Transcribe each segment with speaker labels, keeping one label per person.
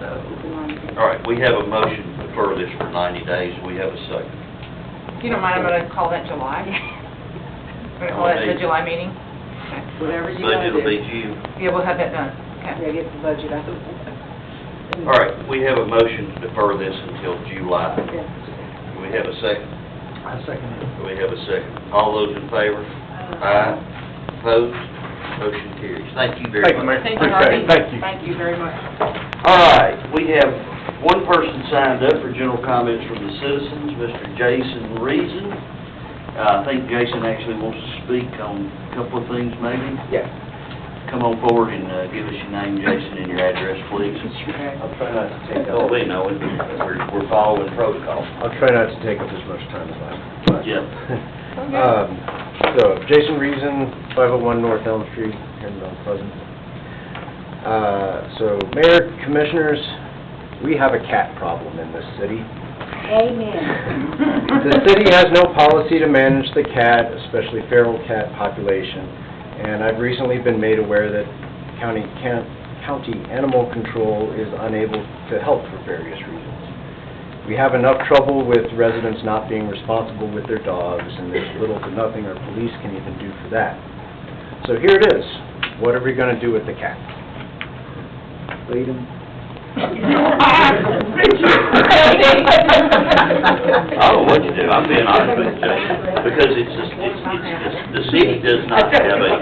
Speaker 1: so.
Speaker 2: All right, we have a motion to defer this for 90 days. We have a second.
Speaker 1: If you don't mind, I'm gonna call that July. We're gonna call that the July meeting? Okay.
Speaker 3: Whatever you want
Speaker 2: Budget
Speaker 3: to
Speaker 2: will be
Speaker 3: do.
Speaker 2: due.
Speaker 1: Yeah, we'll have that done, okay.
Speaker 3: Yeah, get the budget out.
Speaker 2: All right, we have a motion to defer this until July.
Speaker 3: Yeah.
Speaker 2: Do we have a second?
Speaker 4: I second it.
Speaker 2: Do we have a second? All those in favor? Aye. Opposed? Motion carries. Thank you very
Speaker 4: Thank you,
Speaker 2: much.
Speaker 4: Mayor.
Speaker 1: Thank you,
Speaker 4: Appreciate
Speaker 1: Harvey.
Speaker 4: it. Thank you.
Speaker 1: Thank you very much.
Speaker 2: All right, we have one person signed up for general comments from the citizens, Mr. Jason Reason. Uh, I think Jason actually wants to speak on a couple of things maybe.
Speaker 4: Yeah.
Speaker 2: Come on forward and uh, give us your name, Jason, and your address, please.
Speaker 4: I'll try not to take
Speaker 2: Oh,
Speaker 4: up,
Speaker 2: we know, it. we're we're following protocol.
Speaker 4: I'll try not to take up as much time as I
Speaker 2: Yeah.
Speaker 4: Um, So, Jason Reason, 501 North Elm Street, here in Mount Pleasant. Uh, So, Mayor, Commissioners, we have a cat problem in this city.
Speaker 3: Amen.
Speaker 4: The city has no policy to manage the cat, especially feral cat population, and I've recently been made aware that county, can- county animal control is unable to help for various reasons. We have enough trouble with residents not being responsible with their dogs, and there's little to nothing our police can even do for that. So here it is, what are we gonna do with the cat?
Speaker 5: Lead 'em.
Speaker 2: I don't know what you do, I'm being honest with you, Jason, because it's just, it's, it's just, the city does not have a,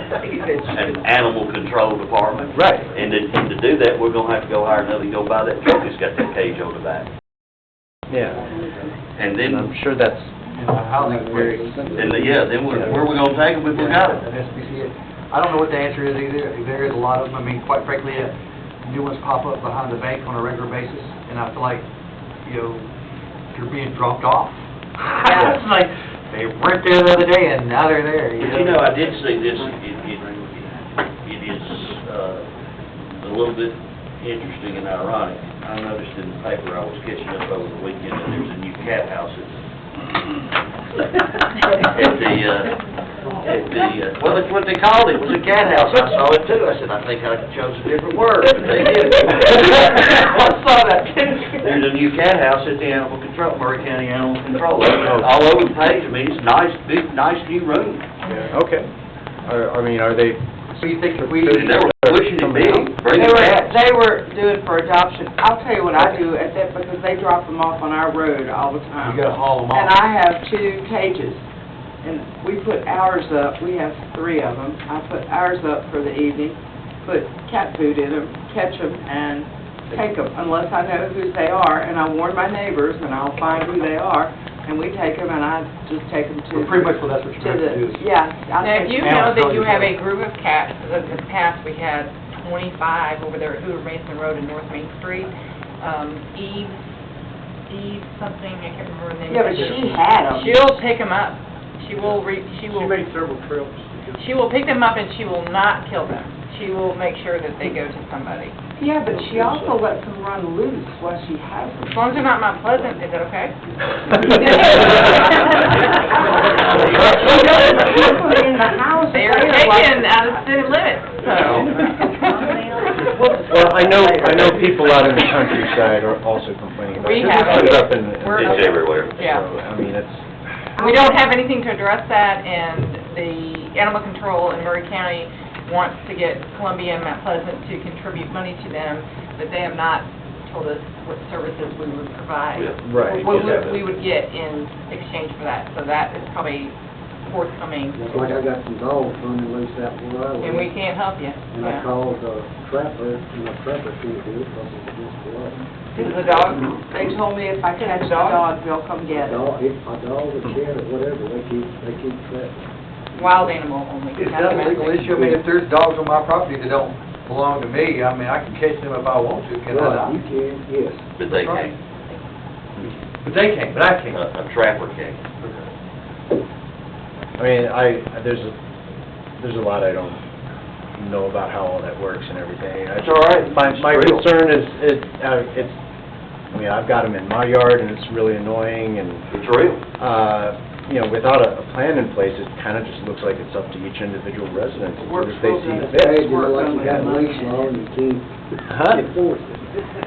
Speaker 2: an animal control department.
Speaker 4: Right.
Speaker 2: And to, and to do that, we're gonna have to go hire another, go buy that truck that's got that cage on the back.
Speaker 4: Yeah,
Speaker 2: And then,
Speaker 4: and I'm sure that's,
Speaker 5: Housing very
Speaker 2: and the- yeah, then where, where we gonna take them if we got them?
Speaker 5: I don't know what the answer is either. There is a lot of them. I mean, quite frankly, uh, new ones pop up behind the bank on a regular basis, and I feel like, you know, you're being dropped off.
Speaker 1: Yeah.
Speaker 5: It's like, they weren't there the other day, and now they're there,
Speaker 2: But you know, I did see this, it, it, it is, uh, a little bit interesting and ironic. I noticed in the paper, I was catching up over the weekend, that there's a new cat house at, at the, uh, at the, uh, well, that's what they called it, it was a cat house. I saw it too, I said, I think I chose a different word, but they did. I saw that. There's a new cat house at the animal control, Murray County Animal Control, all over the page, I mean, it's nice, big, nice new room.
Speaker 4: yeah, okay. I I mean, are they
Speaker 5: So you think if we,
Speaker 2: They were pushing it big,
Speaker 6: They
Speaker 2: bringing
Speaker 6: were,
Speaker 2: cats.
Speaker 6: they were doing for adoption. I'll tell you what I do at that, because they drop them off on our road all the
Speaker 5: you
Speaker 6: time.
Speaker 5: gotta haul them
Speaker 6: And
Speaker 5: off.
Speaker 6: I have two cages, and we put ours up, we have three of them. I put ours up for the evening, put cat food in them, catch them, and take them, unless I know who they are, and I warn my neighbors, and I'll find who they are, and we take them, and I just take them to,
Speaker 5: Well, Pretty much, well, that's what
Speaker 6: to
Speaker 5: you're gonna have to do.
Speaker 6: the,
Speaker 5: is-
Speaker 6: yeah. I
Speaker 1: Now,
Speaker 6: take
Speaker 1: do you
Speaker 5: Now
Speaker 1: know
Speaker 5: it's
Speaker 1: that you
Speaker 5: going
Speaker 1: have a
Speaker 5: to-
Speaker 1: group of cats, in the past, we had 25 over there at Hoover Mason Road and North Main Street, um, Eve, Eve something, I can't remember the name.
Speaker 6: Yeah, but she had them.
Speaker 1: She'll pick them up, she will re, she will,
Speaker 5: several trips.
Speaker 1: she will pick them up and she will not kill them. She will make sure that they go to somebody.
Speaker 6: Yeah, but she also lets them run loose while she has them.
Speaker 1: As long as they're not Mount Pleasant, is that okay?
Speaker 6: In the house, they
Speaker 1: They are
Speaker 6: are like-
Speaker 1: taken out of city limits, so.
Speaker 4: Well, I know, I know people out in the countryside are also complaining about
Speaker 1: We
Speaker 4: it.
Speaker 1: have it.
Speaker 4: It's up in- in-
Speaker 1: We're-
Speaker 2: It's everywhere.
Speaker 1: Yeah.
Speaker 4: So, I mean, it's,
Speaker 1: We don't have anything to address that, and the animal control in Murray County wants to get Columbia and Mount Pleasant to contribute money to them, but they have not told us what services we would provide.
Speaker 4: right.
Speaker 1: What would- we would get in exchange for that, so that is probably forthcoming,
Speaker 5: That's like I got some dogs running loose out where I
Speaker 1: and we can't help you. yeah.
Speaker 5: called the trapper, and the trapper can't do it because it's against the law.
Speaker 1: The dog,
Speaker 5: Mm-hmm.
Speaker 6: They told me if I catch a
Speaker 1: Dog?
Speaker 6: dog, they'll come get it.
Speaker 5: dog, if a dog or cat or whatever, they keep, they keep trapping.
Speaker 1: wild animal only.
Speaker 5: It's
Speaker 1: not
Speaker 5: not a legal
Speaker 1: domestic.
Speaker 5: issue, I mean, if there's dogs on my property that don't belong to me, I mean, I can catch them if I want to, can I not?
Speaker 7: Right, you can, yes.
Speaker 2: But they can't,
Speaker 5: But they can't, but I
Speaker 2: a
Speaker 5: can.
Speaker 2: a trapper can't.
Speaker 4: I mean, I, there's, a there's a lot I don't know about how all that works and everything. I-
Speaker 2: It's all right.
Speaker 4: My, my
Speaker 2: It's real.
Speaker 4: concern is, it, uh, it's, I mean, I've got them in my yard and it's really annoying and,
Speaker 2: It's real.
Speaker 4: uh, you know, without a, a plan in place, it kind of just looks like it's up to each individual resident to do
Speaker 6: Works
Speaker 4: as they
Speaker 6: real
Speaker 4: see
Speaker 6: good.
Speaker 4: fit.
Speaker 7: Hey, you know, like you got leash law and you can't
Speaker 4: Huh?
Speaker 7: enforce it.